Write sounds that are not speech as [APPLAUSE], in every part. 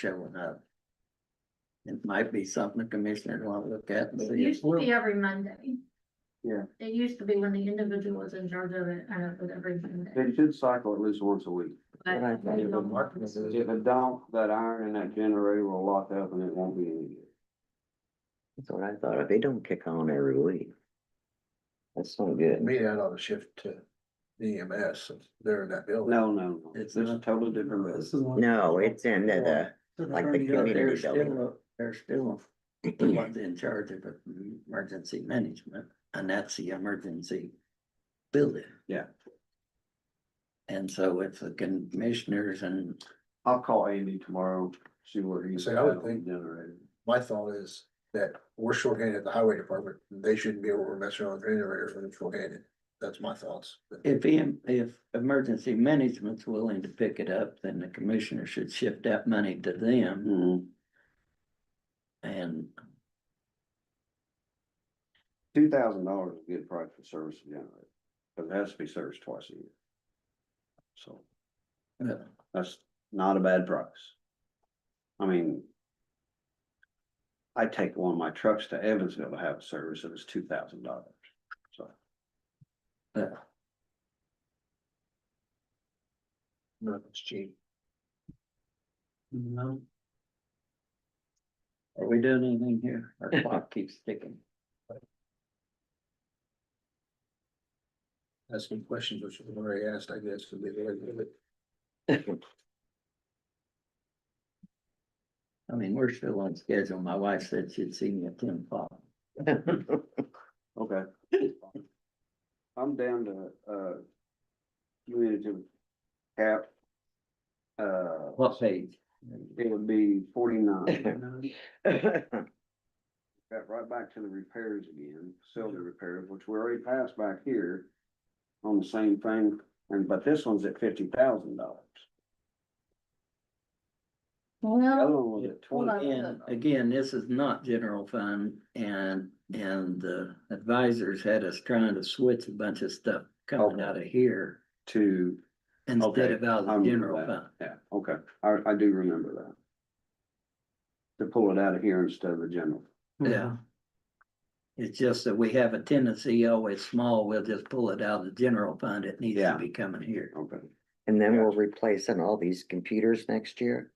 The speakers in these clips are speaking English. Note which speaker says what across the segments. Speaker 1: showing up. It might be something the commissioners wanna look at and
Speaker 2: It
Speaker 1: see if
Speaker 2: used to
Speaker 1: we'll,
Speaker 2: be every Monday.
Speaker 3: Yeah.
Speaker 2: It used to be when the individual was in charge of it, I don't know, every Monday.
Speaker 3: They should cycle at least once a week.
Speaker 2: but
Speaker 1: Right,
Speaker 2: we
Speaker 1: yeah, but
Speaker 2: don't-
Speaker 1: Mark was
Speaker 2: Well,
Speaker 1: in-
Speaker 3: If it don't, that iron in that generator will lock up and it won't be any good.
Speaker 4: That's what I thought. They don't kick on every week. That's not good.
Speaker 5: Me, I'd ought to shift to E EMS since they're in that building.
Speaker 3: No, no, no.
Speaker 1: It's
Speaker 3: It's a
Speaker 1: not-
Speaker 3: totally different
Speaker 5: This
Speaker 3: business.
Speaker 5: is one-
Speaker 4: No, it's in the, like the
Speaker 1: but they're
Speaker 4: community building.
Speaker 1: still, they're still the ones in charge of emergency management, and that's the emergency building.
Speaker 3: Yeah.
Speaker 1: And so if the commissioners and
Speaker 3: I'll call Andy tomorrow, see where he's
Speaker 5: See,
Speaker 3: at
Speaker 5: I would
Speaker 3: on
Speaker 5: think-
Speaker 3: the generator.
Speaker 5: My thought is that we're shorthanded at the highway department. They shouldn't be able to mess around with generators when they're shorthanded. That's my thoughts.
Speaker 1: if em- if emergency management's willing to pick it up, then the commissioner should shift that money to them
Speaker 3: Mhm.
Speaker 1: and
Speaker 3: Two thousand dollars is a good price for service and generator, but it has to be serviced twice a year. So
Speaker 1: uh,
Speaker 3: that's not a bad price. I mean. I take one of my trucks to Evansville to have it serviced, and it's two thousand dollars. So
Speaker 1: uh,
Speaker 5: Nothing's cheap.
Speaker 1: No. Are we doing anything here?
Speaker 3: [LAUGHS]
Speaker 1: Our clock keeps ticking.
Speaker 5: Asking questions which have already asked, I guess, would be the way to do it.
Speaker 1: I mean, we're still on schedule. My wife said she'd see me at ten o'clock.
Speaker 3: Okay. I'm down to, uh. Community cap. Uh,
Speaker 1: What page?
Speaker 3: it would be forty-nine. Got right back to the repairs again, facility repairs, which we already passed back here. On the same thing, and but this one's at fifty thousand dollars. The other one was at
Speaker 2: Hold
Speaker 3: twenty.
Speaker 2: on.
Speaker 1: And again, this is not general fund and, and the advisors had us trying to switch a bunch of stuff coming
Speaker 3: Okay.
Speaker 1: out of here
Speaker 3: To.
Speaker 1: instead
Speaker 3: Okay,
Speaker 1: of out of
Speaker 3: I
Speaker 1: the
Speaker 3: remember
Speaker 1: general
Speaker 3: that.
Speaker 1: fund.
Speaker 3: Yeah, okay, I, I do remember that. To pull it out of here instead of the general.
Speaker 1: Yeah. It's just that we have a tendency, always small, we'll just pull it out of the general fund. It needs to
Speaker 3: Yeah.
Speaker 1: be coming here.
Speaker 3: Okay,
Speaker 4: And then we're replacing all these computers next year.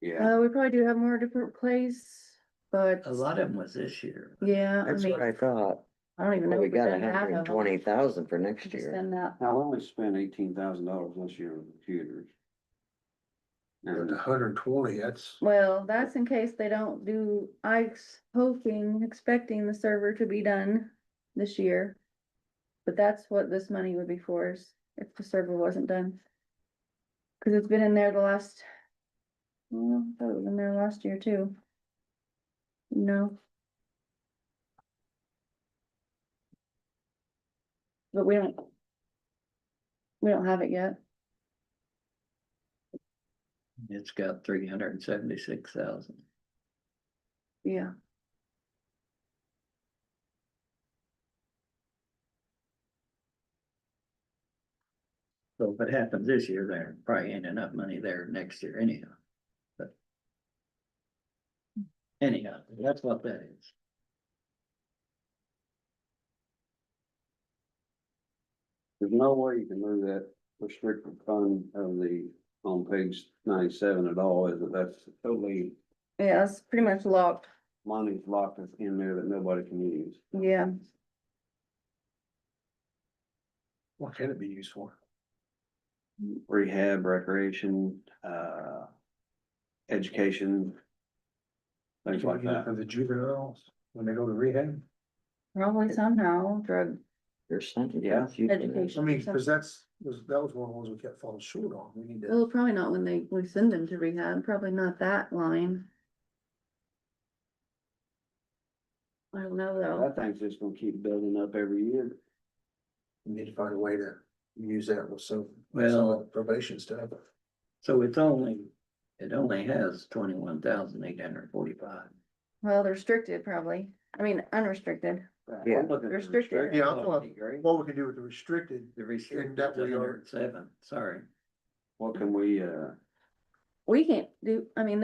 Speaker 3: yeah.
Speaker 6: Uh, we probably do have more different plays, but
Speaker 1: A lot of them was this year.
Speaker 6: yeah, I
Speaker 4: Oh, That's
Speaker 6: mean,
Speaker 4: what I thought.
Speaker 6: I don't even
Speaker 4: Well,
Speaker 6: know.
Speaker 4: we
Speaker 6: if we've
Speaker 4: got a
Speaker 6: done half
Speaker 4: hundred and
Speaker 6: of them.
Speaker 4: twenty thousand for
Speaker 6: We've
Speaker 4: next
Speaker 6: just
Speaker 4: year.
Speaker 6: done that.
Speaker 3: Now, we only spent eighteen thousand dollars this year on computers.
Speaker 5: But
Speaker 3: And
Speaker 5: the hundred and twenty, that's,
Speaker 6: Well, that's in case they don't do, I'm hoping, expecting the server to be done this year. But that's what this money would be for is if the server wasn't done. Cause it's been in there the last, well, I thought it was in there last year too. No. But we don't. We don't have it yet.
Speaker 1: It's got three hundred and seventy-six thousand.
Speaker 6: Yeah.
Speaker 1: So if it happens this year, there probably ain't enough money there next year anyhow. But. Anyhow, that's what that is.
Speaker 3: there's no way you can move that restricted fund of the, on page ninety-seven at all, is it? That's totally,
Speaker 6: Yeah, it's pretty much locked.
Speaker 3: money's locked in there that nobody can use.
Speaker 6: Yeah.
Speaker 5: what can it be used for?
Speaker 3: Rehab, recreation, uh. Education. Things like that.
Speaker 5: For the juveniles, when they go to rehab?
Speaker 6: Probably somehow drug
Speaker 4: There's something.
Speaker 3: Yeah.
Speaker 4: about you doing that.
Speaker 5: I
Speaker 6: education.
Speaker 5: mean,
Speaker 6: so-
Speaker 5: cause that's, was, that was one of the ones we kept falling short on. We need to.
Speaker 6: Well, Oh, probably not when they, we send them to rehab, probably not that line. I don't know
Speaker 3: I
Speaker 6: though.
Speaker 3: think it's gonna keep building up every year.
Speaker 5: We need to find a way to use that with some, some
Speaker 1: Well-
Speaker 5: of the probation stuff.
Speaker 1: So it's only, it only has twenty-one thousand eight hundred forty-five.
Speaker 6: Well, they're restricted probably. I mean, unrestricted.
Speaker 4: Yeah.
Speaker 3: I'm looking at the
Speaker 6: Restricted.
Speaker 3: restricted
Speaker 5: Yeah,
Speaker 1: Oh,
Speaker 5: I'm-
Speaker 3: policy, Gary.
Speaker 5: What we can do with the restricted,
Speaker 1: The restricted
Speaker 5: that we are-
Speaker 1: hundred and seven, sorry.
Speaker 3: What can we, uh?
Speaker 6: we can't do, I mean,